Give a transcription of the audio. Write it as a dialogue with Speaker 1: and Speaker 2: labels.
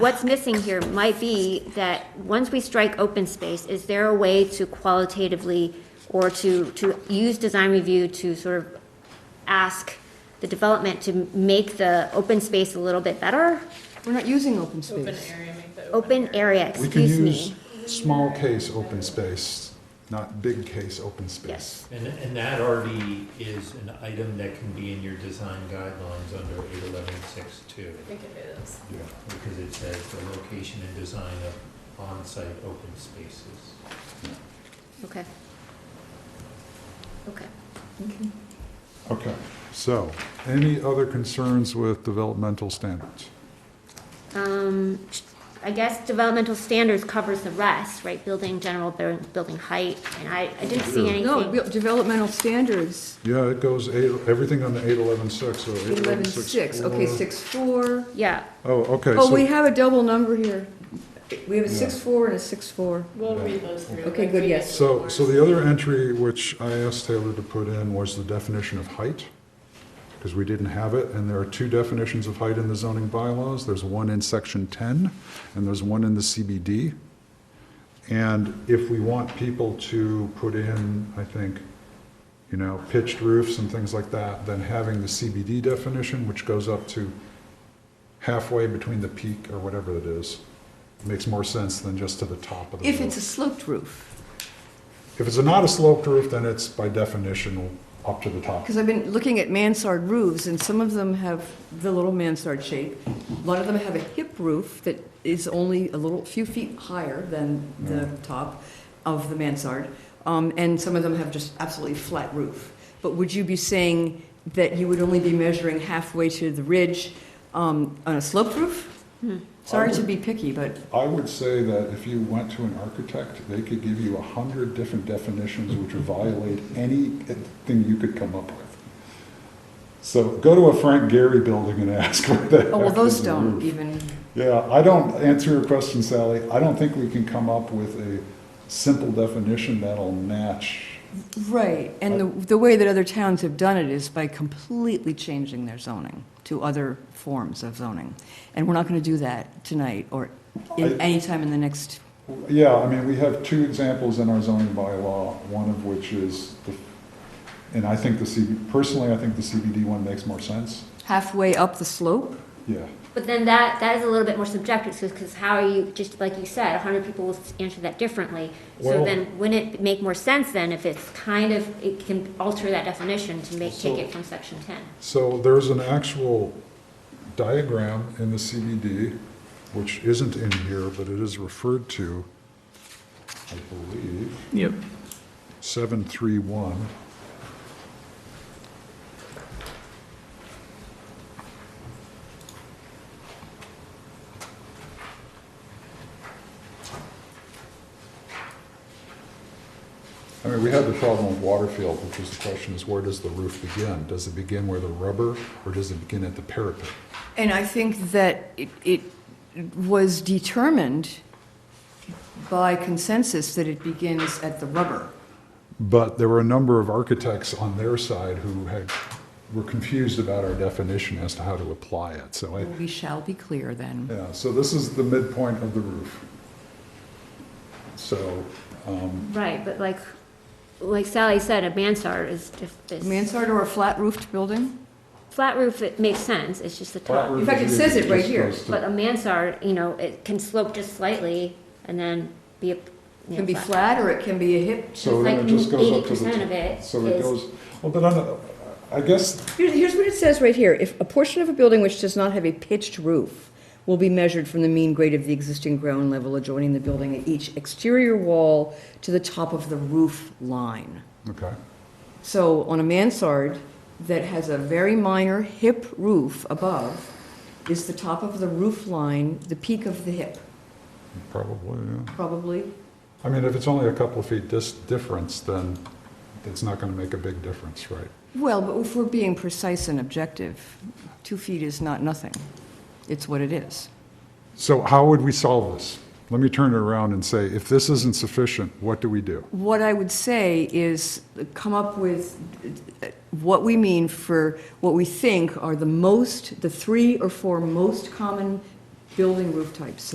Speaker 1: What's missing here might be that, once we strike open space, is there a way to qualitatively, or to, to use design review to sort of ask the development to make the open space a little bit better?
Speaker 2: We're not using open
Speaker 3: Open
Speaker 2: space.
Speaker 3: area, make the
Speaker 1: Open area,
Speaker 4: We can
Speaker 1: excuse
Speaker 4: use
Speaker 1: me.
Speaker 4: small case open space, not big case open space.
Speaker 1: Yes.
Speaker 5: And, and that already is an item that can be in your design guidelines under eight eleven six two,
Speaker 3: We can do this.
Speaker 4: Yeah.
Speaker 5: because it says the location and design of on-site open spaces.
Speaker 1: Okay. Okay.
Speaker 4: Okay, so, any other concerns with developmental standards?
Speaker 1: Um, I guess developmental standards covers the rest, right? Building, general buil- building height, and I, I didn't see anything.
Speaker 2: No, real- developmental standards,
Speaker 4: Yeah, it goes eight, everything on the eight eleven six or eight eleven six.
Speaker 2: 11.6, okay, 6.4.
Speaker 1: Yeah,
Speaker 4: Oh, okay,
Speaker 2: Oh, we
Speaker 4: so,
Speaker 2: have a double number here. We have a
Speaker 4: Yeah.
Speaker 2: 6.4 and a 6.4.
Speaker 3: We'll read those through.
Speaker 2: Okay,
Speaker 3: like
Speaker 2: good,
Speaker 3: we
Speaker 2: yes.
Speaker 3: did
Speaker 4: so,
Speaker 3: before.
Speaker 4: so the other entry which I asked Taylor to put in was the definition of height, because we didn't have it, and there are two definitions of height in the zoning bylaws. There's one in section ten, and there's one in the CBD. And if we want people to put in, I think, you know, pitched roofs and things like that, then having the CBD definition, which goes up to halfway between the peak or whatever it is, makes more sense than just to the top of the
Speaker 2: If
Speaker 4: roof.
Speaker 2: it's a sloped roof,
Speaker 4: If it's not a sloped roof, then it's by definition up to the top.
Speaker 2: because I've been looking at mansard roofs, and some of them have the little mansard shape. A lot of them have a hip roof that is only a little, few feet higher than the top of the mansard, um, and some of them have just absolutely flat roof. But would you be saying that you would only be measuring halfway to the ridge um, on a sloped roof?
Speaker 4: Oh.
Speaker 2: Sorry to be picky, but
Speaker 4: I would say that if you went to an architect, they could give you a hundred different definitions which would violate anything you could come up with. So go to a Frank Gehry building and ask what the
Speaker 2: oh, well,
Speaker 4: heck
Speaker 2: those
Speaker 4: is a
Speaker 2: don't
Speaker 4: roof.
Speaker 2: even.
Speaker 4: Yeah, I don't, answer your question, Sally, I don't think we can come up with a simple definition that'll match.
Speaker 2: Right, and the, the way that other towns have done it is by completely changing their zoning to other forms of zoning. And we're not gonna do that tonight or in,
Speaker 4: I-
Speaker 2: anytime in the next,
Speaker 4: Yeah, I mean, we have two examples in our zoning bylaw, one of which is, the and I think the CB, personally, I think the CBD one makes more sense.
Speaker 2: halfway up the slope?
Speaker 4: Yeah,
Speaker 1: but then that, that is a little bit more subjective, because how are you, just like you said, a hundred people will answer that differently. So
Speaker 4: Well-
Speaker 1: then, wouldn't it make more sense then if it's kind of, it can alter that definition to make, take it from section ten?
Speaker 4: so there's an actual diagram in the CBD, which isn't in here, but it is referred to, I believe,
Speaker 6: Yep.
Speaker 4: 731. I mean, we had the problem of Waterfield, which is the question is where does the roof begin? Does it begin where the rubber, or does it begin at the parapet?
Speaker 2: And I think that it, it was determined by consensus that it begins at the rubber.
Speaker 4: But there were a number of architects on their side who had, were confused about our definition as to how to apply it. So I,
Speaker 2: We shall be clear then.
Speaker 4: yeah, so this is the midpoint of the roof. So,
Speaker 1: Right, but like, like Sally said, a mansard is, is.
Speaker 2: Mansard or a flat roofed building?
Speaker 1: Flat roof, it makes sense, it's just the top.
Speaker 4: flat roof.
Speaker 2: In fact, it
Speaker 4: is-
Speaker 2: says it right
Speaker 4: just
Speaker 2: here,
Speaker 4: goes to-
Speaker 1: But a mansard, you know, it can slope just slightly and then be a. you know,
Speaker 2: Can be flat or it can be a hip
Speaker 4: So then
Speaker 1: like
Speaker 4: it just goes up to the.
Speaker 1: 80% of it
Speaker 4: So it
Speaker 1: is-
Speaker 4: goes, well, but I don't- I guess
Speaker 2: Here's, here's what it says right here. If a portion of a building which does not have a pitched roof will be measured from the mean grade of the existing ground level adjoining the building at each exterior wall to the top of the roof line.
Speaker 4: Okay,
Speaker 2: So on a mansard that has a very minor hip roof above is the top of the roof line, the peak of the hip,
Speaker 4: probably, yeah.
Speaker 2: probably.
Speaker 4: I mean, if it's only a couple of feet dis- difference, then it's not gonna make a big difference, right?
Speaker 2: Well, but if we're being precise and objective, two feet is not nothing. It's what it is.
Speaker 4: So how would we solve this? Let me turn it around and say, if this isn't sufficient, what do we do?
Speaker 2: What I would say is come up with what we mean for what we think are the most, the three or four most common building roof types.